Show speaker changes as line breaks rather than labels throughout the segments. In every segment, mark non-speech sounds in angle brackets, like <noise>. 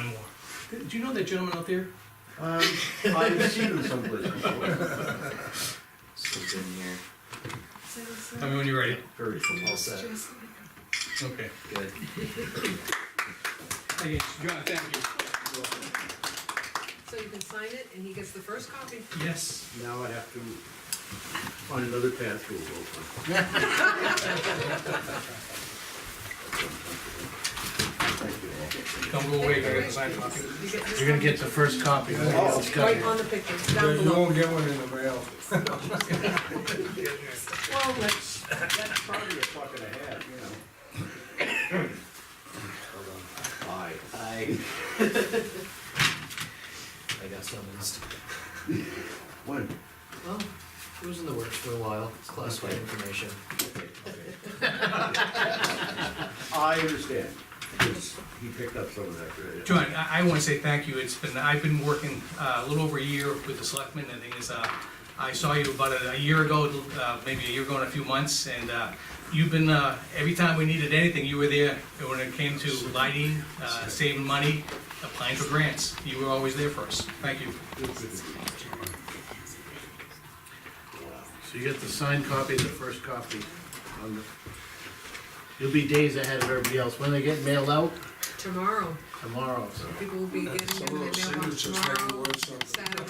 Do you know that gentleman out there?
<laughs> Um, I've seen them someplace before.
Slipped in here.
So it's, uh,
Tell me when you're ready.
Very familiar.
All set.
just-
Okay.
Good.
Thank you. John, thank
So you can sign it and he gets the first copy.
you. Yes.
Now I have to find another path to a road.
Don't go away, I gotta sign Oh. the copy.
You get this
You're gonna
copy.
get the first copy. when it gets cut.
Right on the picture, down
You
below.
won't get one in the mail.
Well, that's,
That's probably a fuck and a half, you know. Hold on. Aye.
I. I got summonsed.
When?
Well, it was in the works for a while. It's classified information.
I understand, because he picked up some of that, right?
John, I, I wanna say thank you, it's been, I've been working, uh, a little over a year with the selectmen, and the thing is, uh, I saw you about a, a year ago, uh, maybe a year ago and a few months, and, uh, you've been, uh, every time we needed anything, you were there, when it came to lighting, uh, saving money, applying for grants, you were always there for us, thank you.
So you get the signed copy, the first copy. on the- You'll be days ahead of everybody else. When they get mailed out,
tomorrow,
tomorrow, so.
people will be getting
Some
them
of
in
those
their mailbox
signatures might be
tomorrow,
worth something.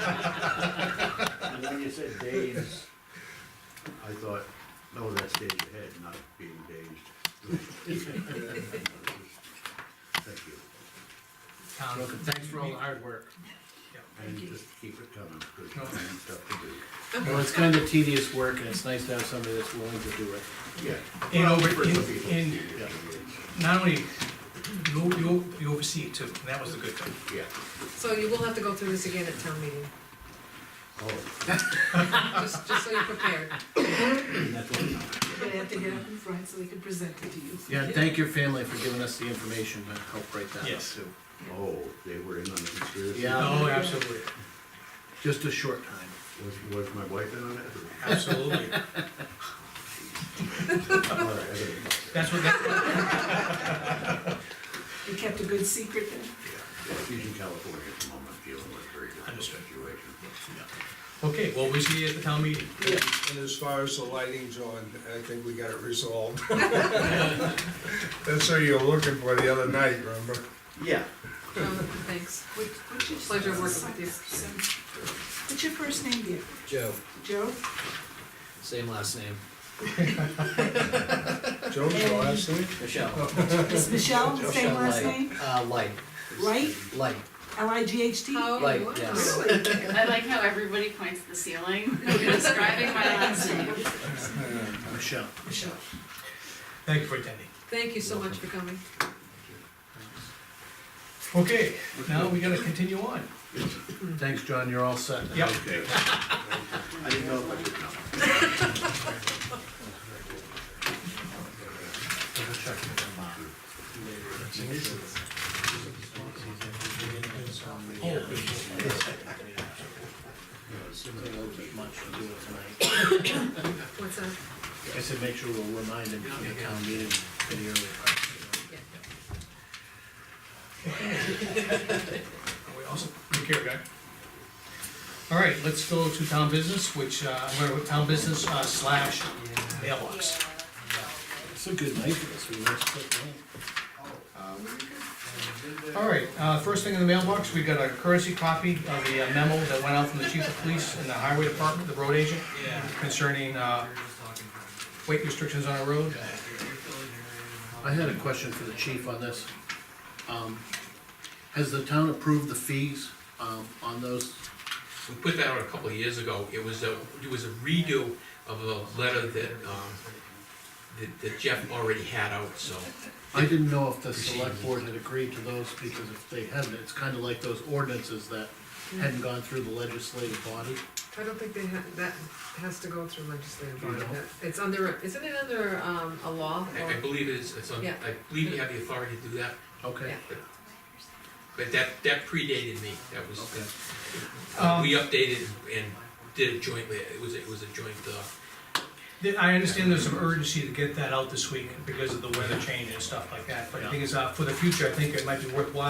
Saturday.
And when you said days, I thought, no, that's days ahead, not being dazed. Thank you.
Town-
Look, Thanks for all the hard work.
And just keep it coming, because
No.
I have stuff to do.
Well, it's kind of tedious work and it's nice to have somebody that's willing to do it.
Yeah.
And
Well,
over-
for some
and-
people,
and-
yeah,
Not only, you, you, you oversee it too, and that was the good thing.
Yeah.
So you will have to go through this again at town meeting,
Oh,
just, just so you're prepared.
that's what I'm-
You're gonna have to get up in front so they can present it to you.
Yeah, and thank your family for giving us the information to help write that up
Yes.
too.
Oh, they were in on the conspiracy?
Yeah.
Oh, absolutely,
Just a short time.
Was, was my wife in on <laughs> it?
absolutely.
All right, I gotta-
That's what, that-
You kept a good secret then?
Yeah, she's in California at the moment, dealing with a very difficult
Understood.
situation.
okay, well, we see you at the town meeting.
And as far as the lighting, John, I think we got it resolved. That's what you were looking for the other night, remember?
Yeah.
Thanks. Pleasure working with you.
What's your first name, dear?
Joe,
Joe?
same last name.
Joe's the last name?
Michelle.
Is Michelle the
<laughs>
same
Michelle
last
Light.
name?
Uh, Light.
Light?
Light.
L-I-G-H-T?
How?
Like,
wow.
yes.
I like how everybody points at the
<laughs>
ceiling when describing my last name.
Michelle.
Michelle.
Thank you for attending.
Thank you so much for coming.
Okay, now we gotta continue on.
Thanks, John, you're all set.
Yep.
Okay. <laughs> I didn't know if I could, no.
Oh,
Seems like there'll be much to do it tonight.
What's that?
I said, make sure we'll remind him from the town meeting in the early part.
we also, take care, guy. All right, let's go to town business, which, uh, I'm gonna- town business uh, slash mailbox.
It's a good night for us, we must put down.
All right, uh, first thing in the mailbox, we got a courtesy copy of the uh, memo that went out from the chief of police and the highway department, the road agent, concerning, uh, weight restrictions on a road.
I had a question for the chief on this. Um, Has the town approved the fees um, on those?
We put that out a couple of years ago, it was a, it was a redo of a letter that, um, that- that Jeff already had out, so.
I didn't know if the select board had agreed to those, because if they hadn't, it's kind of like those ordinances that hadn't gone through the legislative body.
I don't think they ha that has to go through legislative body,
No.
that, it's under, isn't it under, um, a law?
I, I
or-
believe it's, it's on,
Yeah.
I believe you have the authority to do that,
Okay.
Yeah.
but that, that predated me, that was,
Okay.
uh, we updated and did it jointly, it was, it was a joint, uh,
Th- I understand there's some urgency to get that out this week because of the weather change and stuff like that, but the thing is, uh, for the future, I think it might be worthwhile